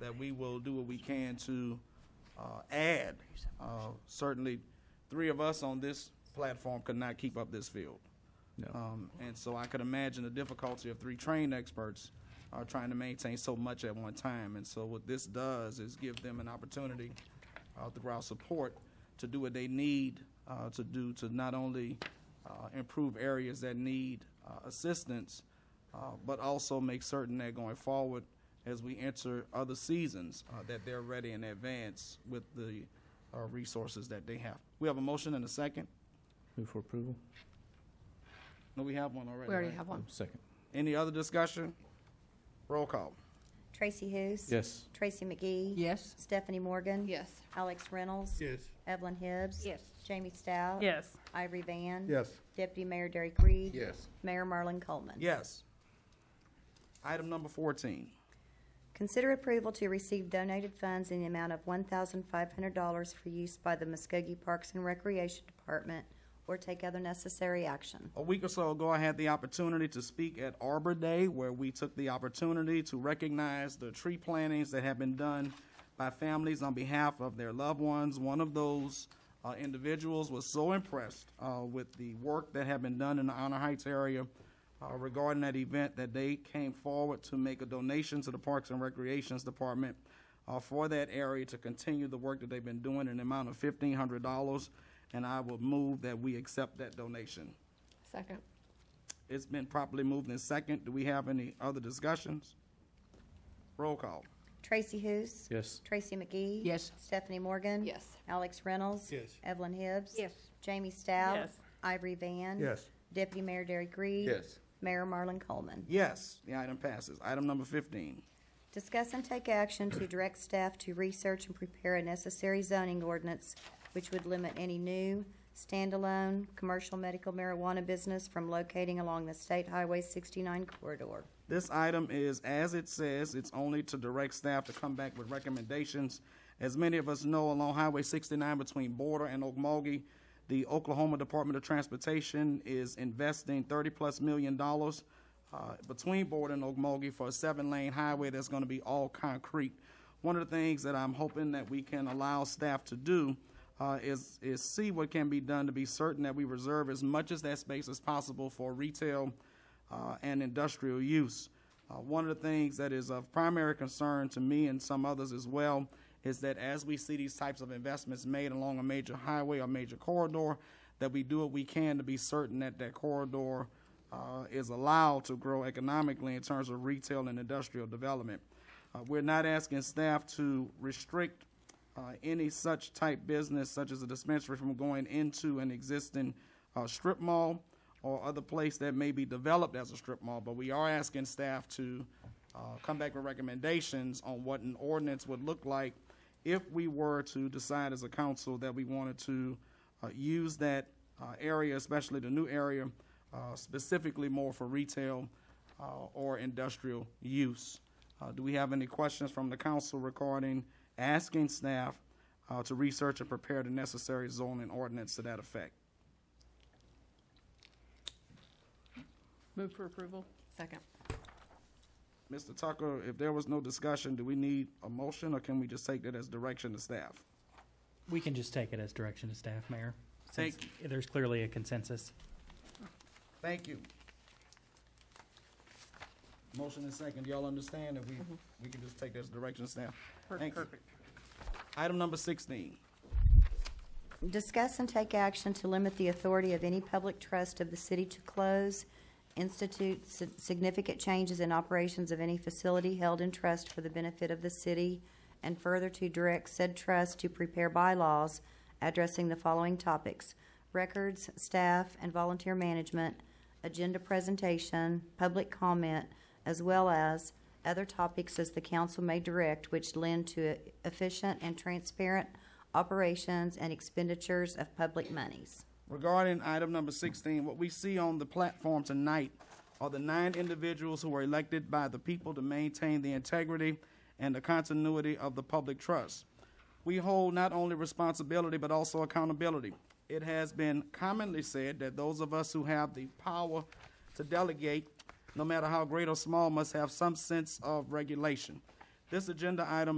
that we will do what we can to uh, add. Uh, Certainly, three of us on this platform could not keep up this field. No. Um, And so I could imagine the difficulty of three trained experts are trying to maintain so much at one time. And so what this does is give them an opportunity uh, through our support to do what they need uh, to do to not only uh, improve areas that need uh, assistance, uh, but also make certain that going forward, as we enter other seasons, uh, that they're ready in advance with the uh, resources that they have. We have a motion and a second? Move for approval? No, we have one already. We already right? have one. Second. Any other discussion? Roll call. Tracy Hous. Yes. Tracy McGee. Yes. Stephanie Morgan. Yes. Alex Reynolds. Yes. Evelyn Hibbs. Yes. Jamie Stout. Yes. Ivory Van. Yes. Deputy Mayor Derek Reed. Yes. Mayor Marlon Coleman. Yes. Item number 14. Consider approval to receive donated funds in the amount of one thousand five hundred dollars for use by the Muskogee Parks and Recreation Department or take other necessary action. A week or so ago, I had the opportunity to speak at Arbor Day, where we took the opportunity to recognize the tree plantings that have been done by families on behalf of their loved ones. One of those uh, individuals was so impressed uh, with the work that had been done in the Honor Heights area uh, regarding that event that they came forward to make a donation to the Parks and Recreations Department uh, for that area to continue the work that they've been doing in the amount of $1,500. And I will move that we accept that donation. Second. It's been properly moved in second. Do we have any other discussions? Roll call. Tracy Hous. Yes. Tracy McGee. Yes. Stephanie Morgan. Yes. Alex Reynolds. Yes. Evelyn Hibbs. Yes. Jamie Stout. Yes. Ivory Van. Yes. Deputy Mayor Derek Reed. Yes. Mayor Marlon Coleman. Yes, the item passes. Item number fifteen. Discuss and take action to direct staff to research and prepare a necessary zoning ordinance which would limit any new, standalone, commercial medical marijuana business from locating along the State Highway 69 corridor. This item is, as it says, it's only to direct staff to come back with recommendations. As many of us know, along Highway 69 between Border and Okmulgee, the Oklahoma Department of Transportation is investing 30-plus million dollars uh, between Border and Okmulgee for a seven-lane highway that's going to be all concrete. One of the things that I'm hoping that we can allow staff to do uh, is, is see what can be done to be certain that we reserve as much as that space as possible for retail uh, and industrial use. Uh, One of the things that is of primary concern to me and some others as well is that as we see these types of investments made along a major highway or major corridor, that we do what we can to be certain that that corridor uh, is allowed to grow economically in terms of retail and industrial development. Uh, We're not asking staff to restrict uh, any such type business, such as a dispensary, from going into an existing uh, strip mall or other place that may be developed as a strip mall. But we are asking staff to uh, come back with recommendations on what an ordinance would look like if we were to decide as a council that we wanted to uh, use that uh, area, especially the new area, uh, specifically more for retail uh, or industrial use. Uh, Do we have any questions from the council regarding asking staff uh, to research and prepare the necessary zoning ordinance to that effect? Move for approval? Second. Mr. Tucker, if there was no discussion, do we need a motion, or can we just take that as direction to staff? We can just take it as direction to staff, Mayor. since Thank There's clearly a consensus. Thank you. Motion and second, y'all understand that we, we can just take that as direction to staff? Thank you. Item number sixteen. Discuss and take action to limit the authority of any public trust of the city to close, institute si- significant changes in operations of any facility held in trust for the benefit of the city, and further to direct said trust to prepare bylaws addressing the following topics: records, staff, and volunteer management, agenda presentation, public comment, as well as other topics as the council may direct which lend to efficient and transparent operations and expenditures of public monies. Regarding item number sixteen, what we see on the platform tonight are the nine individuals who were elected by the people to maintain the integrity and the continuity of the public trust. We hold not only responsibility but also accountability. It has been commonly said that those of us who have the power to delegate, no matter how great or small, must have some sense of regulation. This agenda item